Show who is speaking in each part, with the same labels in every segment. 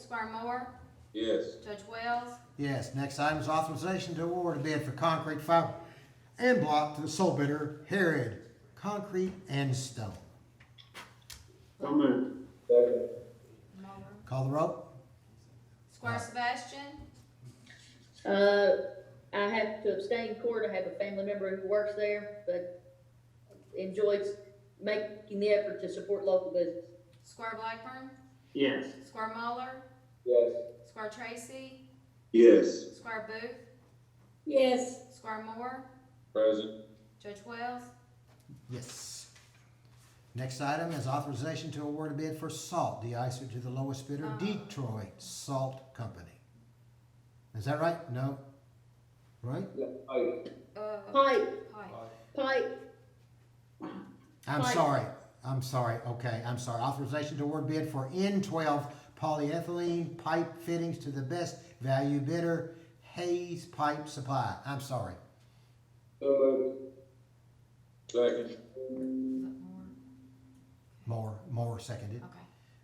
Speaker 1: Squire Moore,
Speaker 2: Yes.
Speaker 1: Judge Wells,
Speaker 3: Yes, next item is authorization to award a bid for concrete fiber and block to the sole bidder, Herod Concrete and Stone.
Speaker 2: So moved. Second.
Speaker 1: Moore,
Speaker 3: Call the roll.
Speaker 1: Squire Sebastian,
Speaker 4: Uh, I have to abstain court, I have a family member who works there, but enjoys making the effort to support local business.
Speaker 1: Squire Blackburn,
Speaker 2: Yes.
Speaker 1: Squire Muller,
Speaker 2: Yes.
Speaker 1: Squire Tracy,
Speaker 2: Yes.
Speaker 1: Squire Booth,
Speaker 4: Yes.
Speaker 1: Squire Moore,
Speaker 2: Present.
Speaker 1: Judge Wells,
Speaker 3: Yes. Next item is authorization to award a bid for salt deicer to the lowest bidder, Detroit Salt Company. Is that right? No? Right?
Speaker 1: uh,
Speaker 4: Pipe,
Speaker 1: Pike.
Speaker 4: pipe,
Speaker 3: I'm
Speaker 4: Aye.
Speaker 3: sorry, I'm sorry, okay, I'm sorry. Authorization to award bid for N twelve polyethylene pipe fittings to the best value bidder, Hayes Pipe Supply. I'm sorry.
Speaker 2: So moved. Second.
Speaker 1: Is that Moore?
Speaker 3: Moore, Moore seconded.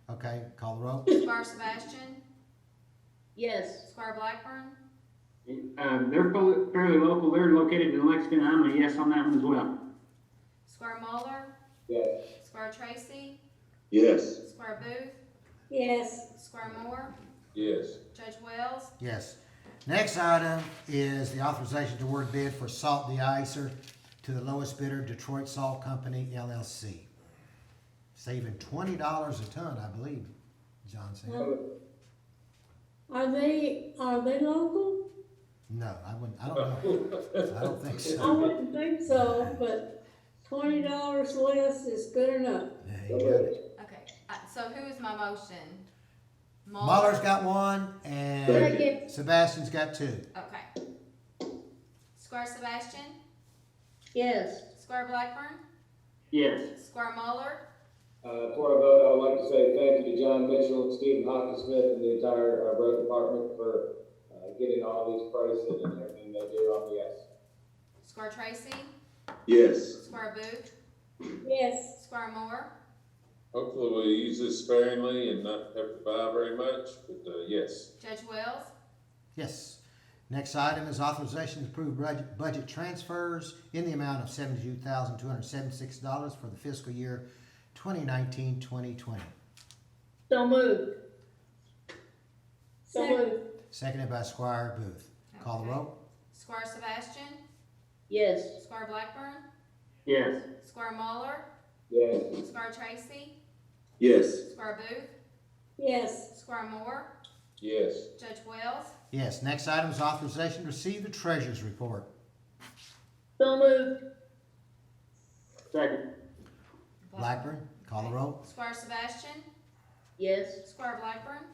Speaker 1: Okay.
Speaker 3: Okay, call the roll.
Speaker 1: Squire Sebastian,
Speaker 4: yes.
Speaker 1: Squire Blackburn,
Speaker 5: Um, they're fo- fairly local. They're located in Lexington. I'm a yes on that one as well.
Speaker 1: Squire Muller,
Speaker 2: Yes.
Speaker 1: Squire Tracy,
Speaker 2: Yes.
Speaker 1: Squire Booth,
Speaker 4: Yes.
Speaker 1: Squire Moore,
Speaker 2: Yes.
Speaker 1: Judge Wells,
Speaker 3: Yes. Next item is the authorization to award bid for salt deicer to the lowest bidder, Detroit Salt Company LLC. Saving twenty dollars a ton, I believe, John said.
Speaker 6: Um, Are they, are they local?
Speaker 3: No, I wouldn't, I don't know. I don't think so.
Speaker 6: I wouldn't think so, but twenty dollars less is good enough.
Speaker 3: Yeah, you got it.
Speaker 1: Okay, uh, so who is my motion?
Speaker 3: Mahler's got one, and
Speaker 4: Second.
Speaker 3: Sebastian's got two.
Speaker 1: Okay. Square Sebastian,
Speaker 4: Yes.
Speaker 1: Square Blackburn,
Speaker 5: Yes.
Speaker 1: Square Muller,
Speaker 2: Uh, before I vote, I would like to say thank you to John Mitchell and Stephen Hawkinsmith and the entire, uh, road department for, uh, getting all these prices and everything they do on the yes.
Speaker 1: Square Tracy,
Speaker 2: Yes.
Speaker 1: Square Booth,
Speaker 6: Yes.
Speaker 1: Square Moore,
Speaker 2: Hopefully we'll use this sparingly and not have to buy very much, but, uh, yes.
Speaker 1: Judge Wells,
Speaker 3: Yes. Next item is authorization to approve budget, budget transfers in the amount of seventy-two thousand, two hundred seventy-six dollars for the fiscal year 2019-2020.
Speaker 4: So moved. So
Speaker 6: Second.
Speaker 4: moved.
Speaker 3: Seconded by Squire Booth. Call the roll.
Speaker 1: Square Sebastian,
Speaker 4: Yes.
Speaker 1: Square Blackburn,
Speaker 5: Yes.
Speaker 1: Square Muller,
Speaker 2: Yes.
Speaker 1: Square Tracy,
Speaker 2: Yes.
Speaker 1: Square Booth,
Speaker 6: Yes.
Speaker 1: Square Moore,
Speaker 2: Yes.
Speaker 1: Judge Wells,
Speaker 3: Yes, next item is authorization to receive the treasurer's report.
Speaker 4: So moved.
Speaker 5: Second.
Speaker 3: Blackburn, call the roll.
Speaker 1: Square Sebastian,
Speaker 4: Yes.
Speaker 1: Square Blackburn,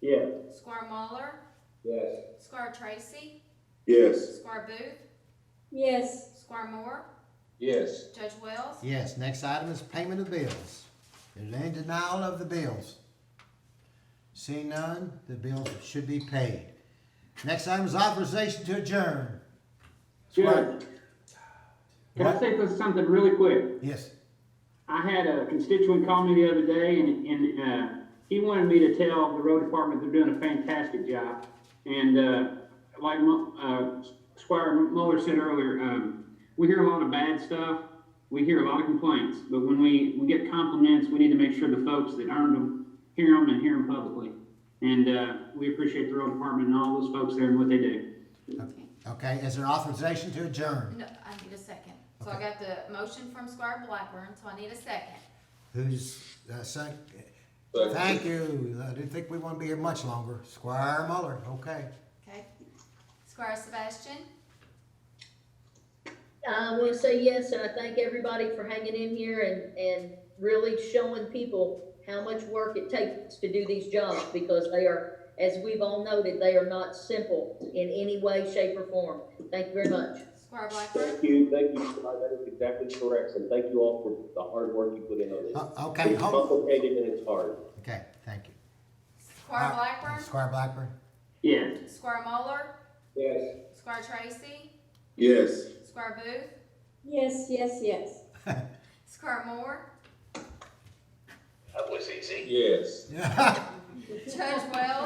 Speaker 5: Yes.
Speaker 1: Square Muller,
Speaker 2: Yes.
Speaker 1: Square Tracy,
Speaker 2: Yes.
Speaker 1: Square Booth,
Speaker 6: Yes.
Speaker 1: Square Moore,
Speaker 2: Yes.
Speaker 1: Judge Wells,
Speaker 3: Yes, next item is payment of bills. Is there any denial of the bills? Seeing none, the bills should be paid. Next item is authorization to adjourn.
Speaker 5: Judge, can I say this- something really quick?
Speaker 3: Yes,
Speaker 5: I had a constituent call me the other day, and, and uh, he wanted me to tell the road department they're doing a fantastic job. And uh, like Mo- uh, Squire Muller said earlier, um, we hear a lot of bad stuff. We hear a lot of complaints, but when we, we get compliments, we need to make sure the folks that earned them hear them and hear them publicly. And uh, we appreciate the road department and all those folks there and what they do.
Speaker 3: okay, is there authorization to adjourn?
Speaker 1: No, I need a second. So I got the motion from Squire Blackburn, so I need a second.
Speaker 3: Who's, uh, sec- thank you, I didn't think we want to be here much longer. Squire Muller, okay.
Speaker 1: Okay. Squire Sebastian,
Speaker 4: I want to say yes, and I thank everybody for hanging in here and, and really showing people how much work it takes to do these jobs, because they are, as we've all noted, they are not simple in any way, shape, or form. Thank you very much.
Speaker 1: Squire Blackburn,
Speaker 7: Thank you, thank you, Scott. that is exactly correct, and thank you all for the hard work you put in on this.
Speaker 3: Uh, Okay,
Speaker 7: It's
Speaker 3: hold,
Speaker 7: complicated and it's hard.
Speaker 3: okay, thank you.
Speaker 1: Squire Blackburn,
Speaker 3: Squire Blackburn,
Speaker 5: Yes.
Speaker 1: Squire Muller,
Speaker 2: Yes.
Speaker 1: Squire Tracy,
Speaker 2: Yes.
Speaker 1: Squire Booth,
Speaker 6: Yes, yes, yes.
Speaker 1: Squire Moore,
Speaker 7: That was easy.
Speaker 2: Yes.
Speaker 3: yeah.
Speaker 1: Judge Wells,